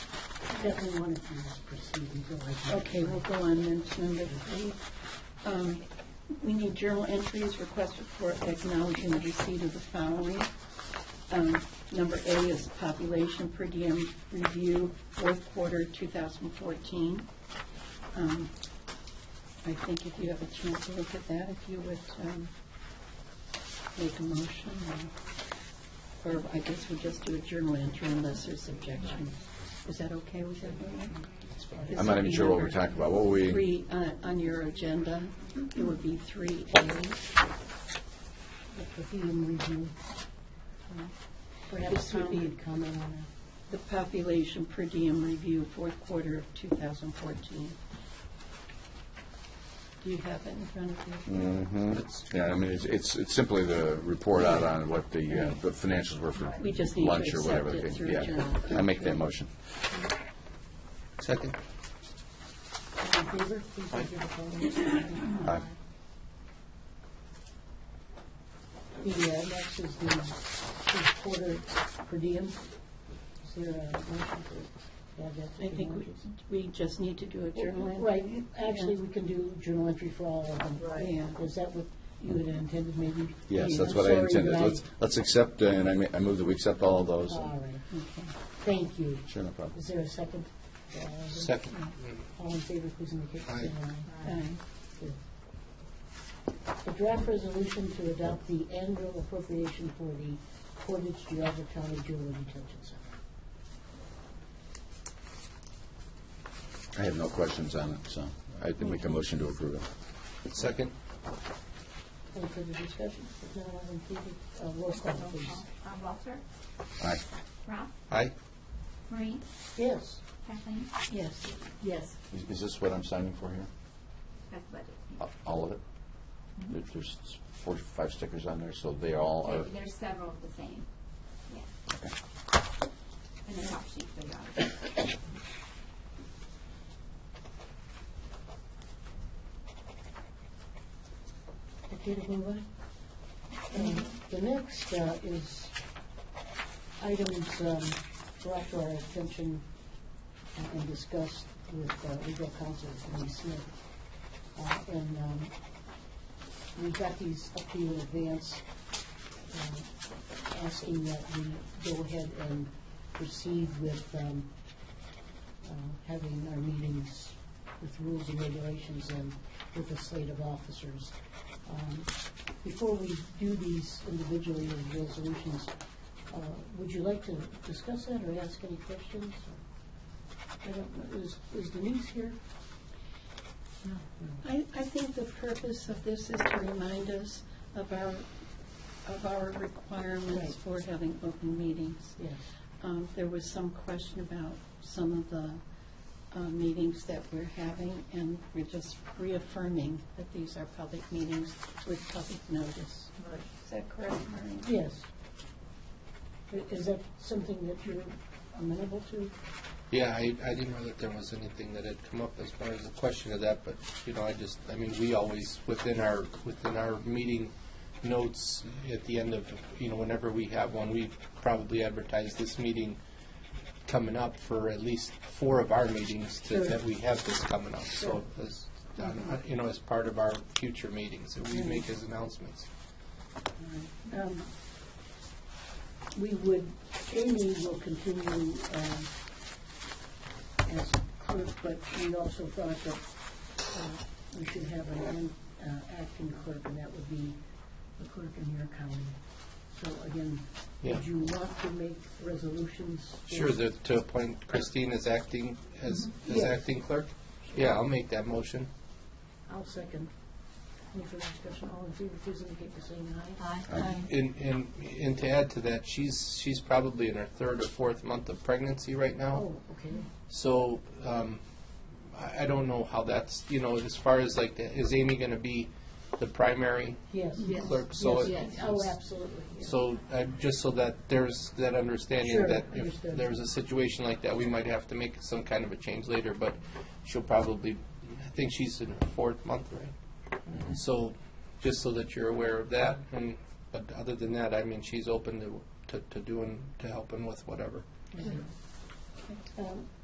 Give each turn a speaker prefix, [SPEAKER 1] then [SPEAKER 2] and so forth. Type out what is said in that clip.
[SPEAKER 1] Definitely want to use proceeding, go ahead.
[SPEAKER 2] Okay, we'll go on then to number three. Um, We need journal entries, request report acknowledging the receipt of the following. Um, Number A is population per diem review, fourth quarter 2014. Um, I think if you have a chance to look at that, if you would um, make a motion, or- or I guess we just do a journal entry unless there's objection. Is that okay with everyone?
[SPEAKER 3] I'm not even sure what we're talking about. What were we,
[SPEAKER 2] Three, uh, on your agenda, it would be three A.
[SPEAKER 1] Podium review.
[SPEAKER 2] Perhaps
[SPEAKER 1] Perhaps
[SPEAKER 2] Tom
[SPEAKER 1] we
[SPEAKER 2] would
[SPEAKER 1] could comment on that.
[SPEAKER 2] The population per diem review, fourth quarter of 2014. Do you have it in front of you?
[SPEAKER 3] Mm-hmm. yeah, I mean, it's, it's it's simply the report out on what the, uh, the financials were for
[SPEAKER 2] We just need to
[SPEAKER 3] lunch or whatever.
[SPEAKER 2] accept it
[SPEAKER 3] they-
[SPEAKER 2] through
[SPEAKER 3] Yeah,
[SPEAKER 2] journal.
[SPEAKER 3] I make that motion. Second.
[SPEAKER 1] All in favor, please give a vote.
[SPEAKER 3] Aye.
[SPEAKER 1] The uh, next is the first quarter per diem. Is there a motion to add that? to
[SPEAKER 2] I
[SPEAKER 1] the
[SPEAKER 2] think we-
[SPEAKER 1] motions?
[SPEAKER 2] we just need to do a journal entry.
[SPEAKER 1] Right, actually, we can do journal entry for all of them.
[SPEAKER 2] Right. Yeah.
[SPEAKER 1] Is that what you had intended, maybe?
[SPEAKER 3] Yes, that's
[SPEAKER 1] I'm
[SPEAKER 3] what I
[SPEAKER 1] sorry
[SPEAKER 3] intended.
[SPEAKER 1] that I-
[SPEAKER 3] Let's, let's accept, uh, and I ma- I move that we accept all of those.
[SPEAKER 2] Uh,
[SPEAKER 1] All right, thank you.
[SPEAKER 3] Sure, no problem.
[SPEAKER 1] Is there a second? Uh,
[SPEAKER 3] Second.
[SPEAKER 1] All in favor, please indicate by saying aye.
[SPEAKER 2] Um,
[SPEAKER 1] A draft resolution to adopt the annual appropriation for the Portage Geogga County Juvenile Detention Center.
[SPEAKER 3] I have no questions on it, so I think make a motion to approve it. Second.
[SPEAKER 1] Any further discussion? If not, all in favor, uh, roll call, please.
[SPEAKER 4] Uh, Walter,
[SPEAKER 3] Aye.
[SPEAKER 4] Ralph,
[SPEAKER 3] Aye.
[SPEAKER 4] Marie,
[SPEAKER 1] Yes.
[SPEAKER 4] Kathleen,
[SPEAKER 2] Yes,
[SPEAKER 1] Yes.
[SPEAKER 3] Is- Is this what I'm signing for here?
[SPEAKER 4] that's about it.
[SPEAKER 3] A- All of it? There- There's four, five stickers on there, so they all
[SPEAKER 4] There-
[SPEAKER 3] are,
[SPEAKER 4] There's several of the same, yeah. And the top sheet for the audit.
[SPEAKER 1] Okay, to move on. Um, The next uh, is items um, brought to our attention and discussed with uh, legal counsel, Lee Smith. Uh, And um, we got these up to you in advance, um, asking that we go ahead and proceed with um, uh, having our meetings with rules and regulations and with a slate of officers. Um, Before we do these individually as resolutions, uh, would you like to discuss that or ask any questions? I don't know, is is Denise here?
[SPEAKER 2] I, I think the purpose of this is to remind us of our, of our
[SPEAKER 1] Right.
[SPEAKER 2] requirements for having open meetings.
[SPEAKER 1] Yes.
[SPEAKER 2] Um, There was some question about some of the uh, meetings that we're having, and we're just reaffirming that these are public meetings with public notice. Is that correct, Maureen?
[SPEAKER 1] Yes. I- Is that something that you're amenable to?
[SPEAKER 5] Yeah, I, I didn't know that there was anything that had come up as far as the question of that, but, you know, I just, I mean, we always, within our, within our meeting notes, at the end of, you know, whenever we have one, we probably advertise this meeting coming up for at least four of our meetings
[SPEAKER 1] Sure.
[SPEAKER 5] that, that we have this coming up, so, as, um, you know, as part of our future meetings, that we make as announcements.
[SPEAKER 1] Um, We would, Amy will continue um, as clerk, but we also thought that uh, we should have an uh, acting clerk, and that would be the clerk in your county. So again,
[SPEAKER 5] Yeah.
[SPEAKER 1] would you want to make resolutions? for-
[SPEAKER 5] Sure, that, to appoint Christine as acting, as, as
[SPEAKER 1] Yeah.
[SPEAKER 5] acting clerk? Yeah, I'll make that motion.
[SPEAKER 1] I'll second. Any further discussion? All in favor, please indicate by saying aye.
[SPEAKER 5] And, and, and to add to that, she's, she's probably in her third or fourth month of pregnancy right now.
[SPEAKER 1] Oh, okay.
[SPEAKER 5] So, um, I, I don't know how that's, you know, as far as like, the- is Amy gonna be the primary?
[SPEAKER 1] Yes.
[SPEAKER 2] Yes.
[SPEAKER 5] Clerk, so
[SPEAKER 1] Yes,
[SPEAKER 5] it-
[SPEAKER 1] yes. Oh, absolutely. yes.
[SPEAKER 5] So, uh, just so that there's that understanding
[SPEAKER 1] Sure,
[SPEAKER 5] that if
[SPEAKER 1] understood.
[SPEAKER 5] there's a situation like that, we might have to make some kind of a change later, but she'll probably, I think she's in her fourth month, right? So, just so that you're aware of that, and, but other than that, I mean, she's open to, to, to doing, to helping with whatever.
[SPEAKER 1] Um,